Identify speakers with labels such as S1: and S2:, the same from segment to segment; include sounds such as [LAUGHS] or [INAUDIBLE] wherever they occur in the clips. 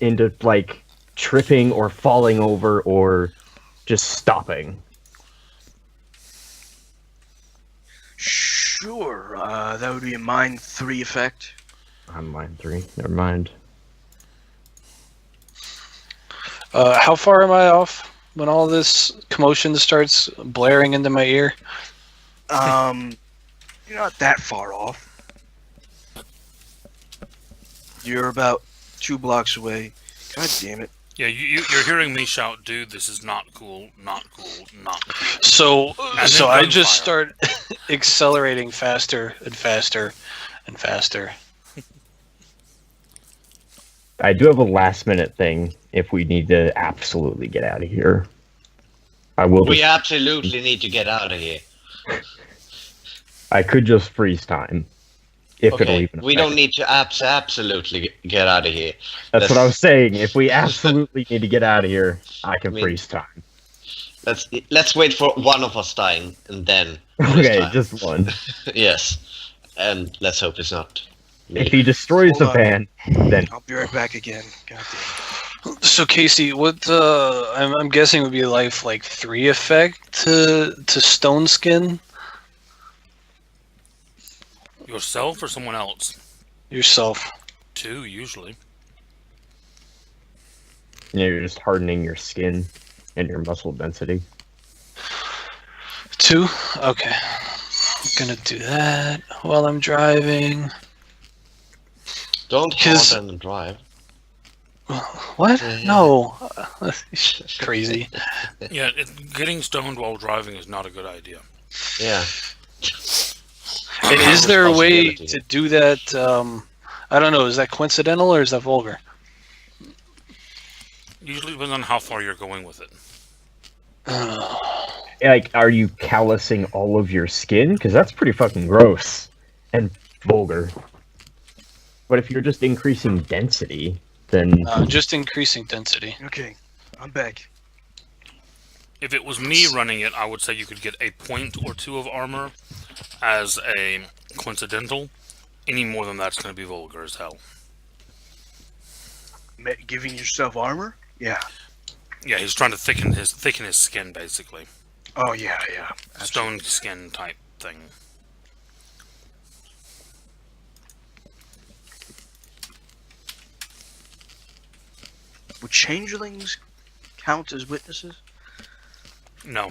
S1: into like tripping or falling over or just stopping.
S2: Sure, uh, that would be a mine three effect.
S1: On mine three. Never mind.
S3: Uh, how far am I off when all this commotion starts blaring into my ear?
S2: Um, [LAUGHS] you're not that far off. You're about two blocks away. God damn it!
S4: Yeah, you, you, you're hearing me shout, dude, this is not cool, not cool, not cool.
S3: So,
S4: then
S3: so I just
S4: gunfire.
S3: start accelerating faster and faster and faster.
S1: I do have a last minute thing if we need to absolutely get out of here. I will
S5: We
S1: just,
S5: absolutely need to get out of here.
S1: I could just freeze time. If it'll
S5: Okay,
S1: even
S5: we
S1: affect
S5: don't need to abs- absolutely get out of here.
S1: That's what
S5: That's-
S1: I was saying. If
S5: [LAUGHS]
S1: we absolutely need to get out of here, I can
S5: I mean-
S1: freeze time.
S5: Let's let's wait for one of us dying and then. [LAUGHS] freeze
S1: Okay,
S5: time.
S1: just one.
S5: [LAUGHS] yes, and let's hope it's not. me.
S1: If he destroys
S2: Hold
S1: the
S2: on.
S1: van, then
S2: I'll be right back again. God damn it.
S3: So Casey, what uh, I'm, I'm guessing would be life like three effect to to stone skin
S4: Yourself or someone else?
S3: yourself.
S4: Two, usually.
S1: you know, you're just hardening your skin and your muscle density.
S3: Two. Okay. I'm gonna do that while I'm driving.
S5: Don't
S3: His-
S5: hard and drive.
S3: What?
S5: Yeah, yeah.
S3: No. [LAUGHS] Crazy.
S4: Yeah, it, getting stoned while driving is not a good idea.
S5: Yeah.
S3: And is there a way
S5: Responsibility.
S3: to do that? Um, I don't know. Is that coincidental or is that vulgar?
S4: Usually depends on how far you're going with it.
S3: Uh,
S1: Like, are you callousing all of your skin? Because that's pretty fucking gross and vulgar. But if you're just increasing density, then
S3: uh, just increasing density.
S2: Okay, I'm back.
S4: If it was me running it, I would say you could get a point or two of armor as a coincidental. Any more than that's going to be vulgar as hell.
S2: Ma- giving yourself armor? Yeah.
S4: Yeah, he's trying to thicken his thicken his skin basically,
S2: Oh yeah, yeah.
S4: stone skin type thing.
S2: Would changelings count as witnesses?
S4: No,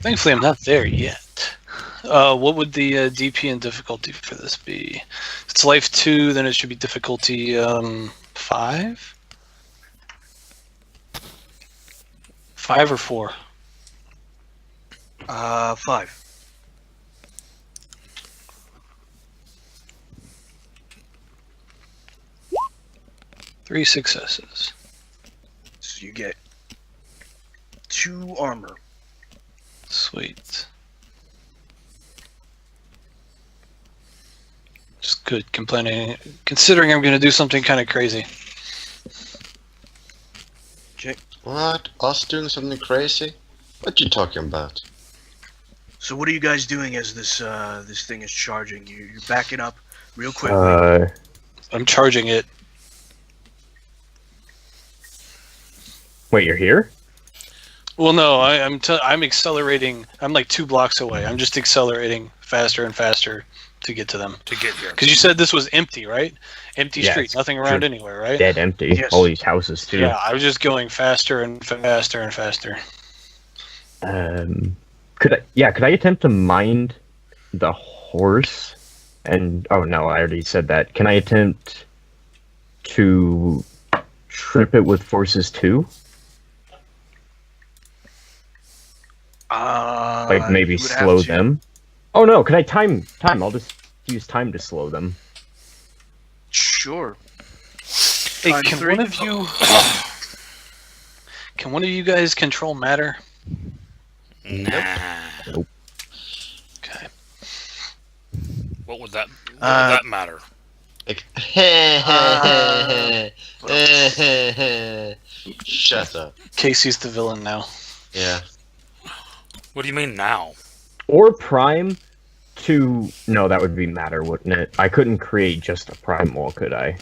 S3: Thankfully, I'm not there yet. Uh, what would the uh, DP and difficulty for this be? If it's life two, then it should be difficulty um, five. Five or four.
S2: Uh, five.
S3: Three successes.
S2: So you get two armor.
S3: Sweet. Just good complaining, considering I'm going to do something kind of crazy.
S5: What? Us doing something crazy? What you talking about?
S2: So what are you guys doing as this uh this thing is charging? You you're backing up real quick.
S1: uh,
S3: I'm charging it.
S1: wait, you're here?
S3: Well, no, I, I'm t- I'm accelerating. I'm like two blocks away. I'm just accelerating faster and faster to get to them.
S4: to get here.
S3: Because you said this was empty, right? Empty
S1: Yeah,
S3: street,
S1: it's
S3: nothing around
S1: true.
S3: anywhere, right?
S1: Dead empty.
S2: Yes.
S1: All these houses too.
S3: Yeah, I was just going faster and faster and faster.
S1: Um, could I? Yeah, could I attempt to mind the horse? And oh no, I already said that. Can I attempt to trip it with forces too?
S2: Uh,
S1: Like maybe
S2: you would have
S1: slow
S2: to-
S1: them? Oh no, can I time time? I'll just use time to slow them.
S2: Sure.
S3: Hey,
S2: Time
S3: can
S2: three.
S3: one of you? [SIGHS] Can one of you guys control matter?
S4: Nah.
S3: Okay.
S4: What would that?
S2: Uh,
S4: What would that matter?
S5: Like,
S2: Uh,
S5: Ah. Shut up.
S3: Casey's the villain now.
S5: Yeah.
S4: What do you mean now?
S1: Or prime to no, that would be matter, wouldn't it? I couldn't create just a primal, could I?